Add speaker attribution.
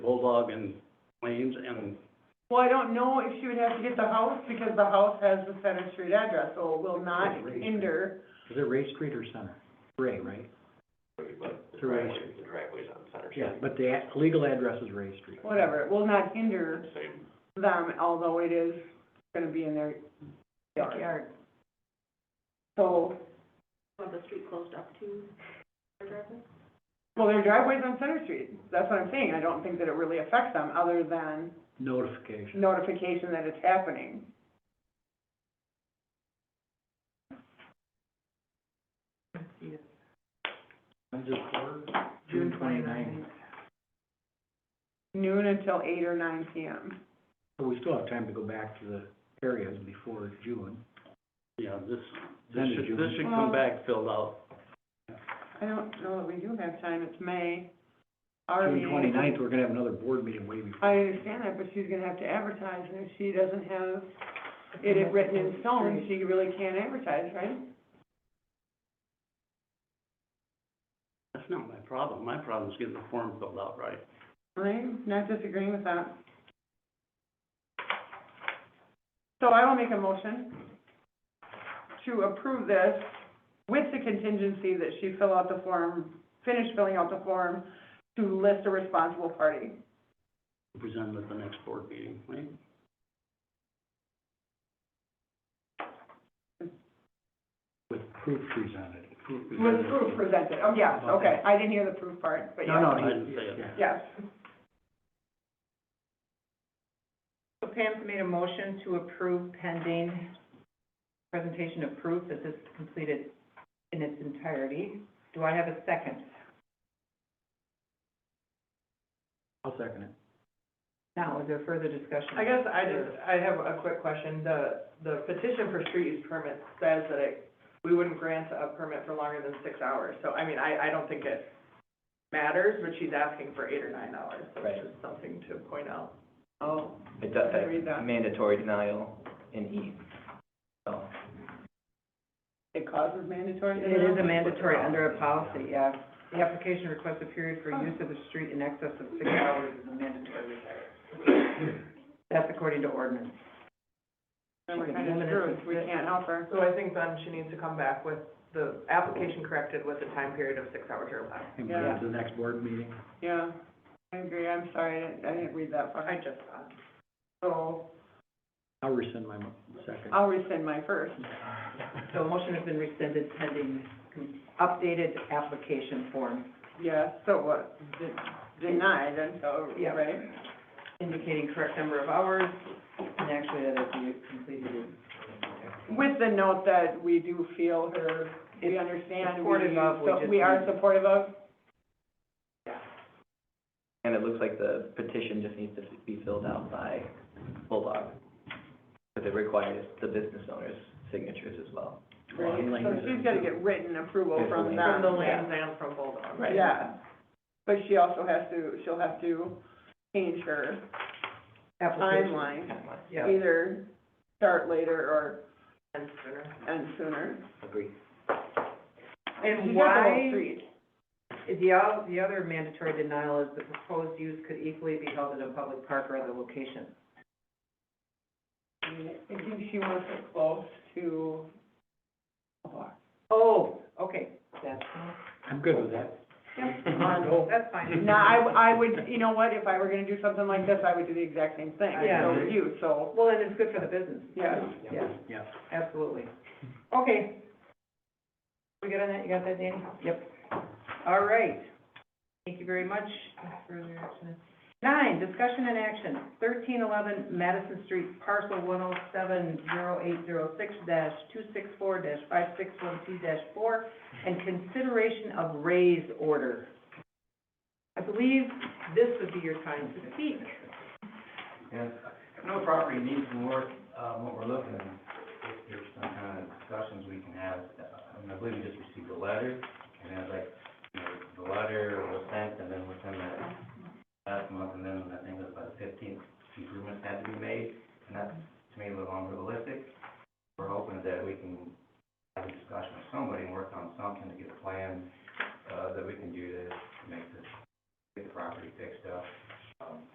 Speaker 1: Bulldog and Lanes and,
Speaker 2: Well, I don't know if she would have to get the house, because the house has the Center Street address, so it will not
Speaker 3: Right.
Speaker 2: hinder.
Speaker 3: Is it Ray Street or Center? Ray, right?
Speaker 4: But the
Speaker 3: To Ray
Speaker 4: driveway,
Speaker 3: Street.
Speaker 4: the driveway's on Center
Speaker 3: Yeah,
Speaker 4: Street.
Speaker 3: but the a- legal address is Ray Street.
Speaker 2: whatever, it will not hinder
Speaker 4: Same,
Speaker 2: them, although it is gonna be in their yard. So,
Speaker 5: the street closed up to their driveway?
Speaker 2: well, their driveway's on Center Street, that's what I'm saying, I don't think that it really affects them, other than
Speaker 3: Notification.
Speaker 2: notification that it's happening.
Speaker 3: When's it for? June twenty-ninth.
Speaker 2: Noon until eight or nine PM.
Speaker 3: So we still have time to go back to the areas before June.
Speaker 1: yeah, this, this
Speaker 3: Then
Speaker 1: should,
Speaker 3: June.
Speaker 1: this should come
Speaker 2: Well-
Speaker 1: back filled out.
Speaker 2: I don't know that we do have time, it's May. Our
Speaker 3: June
Speaker 2: meeting-
Speaker 3: twenty-ninth, we're gonna have another board meeting way before.
Speaker 2: I understand that, but she's gonna have to advertise, and if she doesn't have it written in stone, she really can't advertise, right?
Speaker 1: That's not my problem. My problem is getting the form filled out right.
Speaker 2: I'm not disagreeing with that. So I will make a motion to approve this with the contingency that she fill out the form, finish filling out the form to list a responsible party.
Speaker 1: Present at the next board meeting, right?
Speaker 3: With proof presented.
Speaker 2: With the proof presented, oh, yes, okay, I didn't hear the proof part, but yeah.
Speaker 3: No,
Speaker 1: I
Speaker 3: no,
Speaker 1: didn't say it.
Speaker 3: yeah.
Speaker 2: Yes,
Speaker 6: So Pam's made a motion to approve pending presentation of proof that this is completed in its entirety. Do I have a second?
Speaker 3: I'll second it.
Speaker 6: Now, is there further discussion?
Speaker 7: I guess I just, I have a quick question. The, the petition for street use permit says that it, we wouldn't grant a permit for longer than six hours. So, I mean, I, I don't think it matters, but she's asking for eight or nine hours. So it's
Speaker 8: Right.
Speaker 7: just something to point out.
Speaker 2: oh,
Speaker 8: It
Speaker 2: I didn't read that.
Speaker 8: does, mandatory denial in E, so.
Speaker 2: it causes mandatory.
Speaker 6: It is a mandatory under a policy, yeah. The application requests a period for use of the street in excess of six hours is a mandatory requirement. That's according to ordinance.
Speaker 2: Then we're kind of screwed, we can't help her.
Speaker 7: So I think then she needs to come back with the application corrected with a time period of six hours or less.
Speaker 3: And bring it to the next board meeting.
Speaker 2: Yeah, I agree, I'm sorry, I didn't, I didn't read that
Speaker 7: I
Speaker 2: far.
Speaker 7: just thought.
Speaker 2: So
Speaker 3: I'll rescind my mo- second.
Speaker 2: I'll rescind my first.
Speaker 6: So a motion has been rescinded pending updated application form
Speaker 2: Yeah, so what, De- denied until,
Speaker 6: Yeah.
Speaker 2: right?
Speaker 6: indicating correct number of hours, and actually that it be completed in
Speaker 2: With the note that we do feel her, we
Speaker 6: It's
Speaker 2: understand.
Speaker 6: supportive of, we
Speaker 2: so
Speaker 6: just
Speaker 2: We are
Speaker 6: need-
Speaker 2: supportive of,
Speaker 8: And it looks like the petition just needs to be filled out by Bulldog, because it requires the business owner's signatures as well.
Speaker 3: Well, I'm
Speaker 2: so
Speaker 3: laying-
Speaker 2: she's gotta get written approval from
Speaker 7: From the
Speaker 2: them,
Speaker 7: lands and from Bulldog.
Speaker 8: Right.
Speaker 2: yeah. But she also has to, she'll have to change her
Speaker 6: application.
Speaker 2: timeline,
Speaker 8: Timeline.
Speaker 6: Yeah,
Speaker 2: either start later
Speaker 7: And sooner.
Speaker 2: or end sooner.
Speaker 8: Agree.
Speaker 2: She's
Speaker 6: and
Speaker 2: got the whole
Speaker 6: why,
Speaker 2: street.
Speaker 6: the, o- the other mandatory denial is the proposed use could equally be held at a public park or other location.
Speaker 2: I mean, I think she wants it close to a block.
Speaker 6: Oh, okay, that's,
Speaker 3: I'm good with that.
Speaker 6: that's fine.
Speaker 2: No, I, I would, you know what, if I were gonna do something like this, I would do the exact same thing,
Speaker 6: Yeah.
Speaker 2: so would you, so,
Speaker 6: Well, and it's good for the business,
Speaker 2: yeah.
Speaker 6: yeah,
Speaker 3: Yeah.
Speaker 6: absolutely. Okay. We good on that, you got that, Danny? Yep. All right, thank you very much for your action. Nine, discussion and action, thirteen eleven Madison Street, parcel one oh seven zero eight zero six dash two six four dash five six one two dash four, and consideration of raise order. I believe this would be your time to speak.
Speaker 9: And no property needs more, um, what we're looking, at. if there's some kind of discussions we can have. Uh, I mean, I believe we just received a letter, and I was like, you know, the letter was sent, and then within the last month, and then I think it was about fifteenth, improvements had to be made, and that's, to me, a little unrealistic. We're hoping that we can have a discussion with somebody and work on something to get a plan, uh, that we can do to make this, get the property fixed up.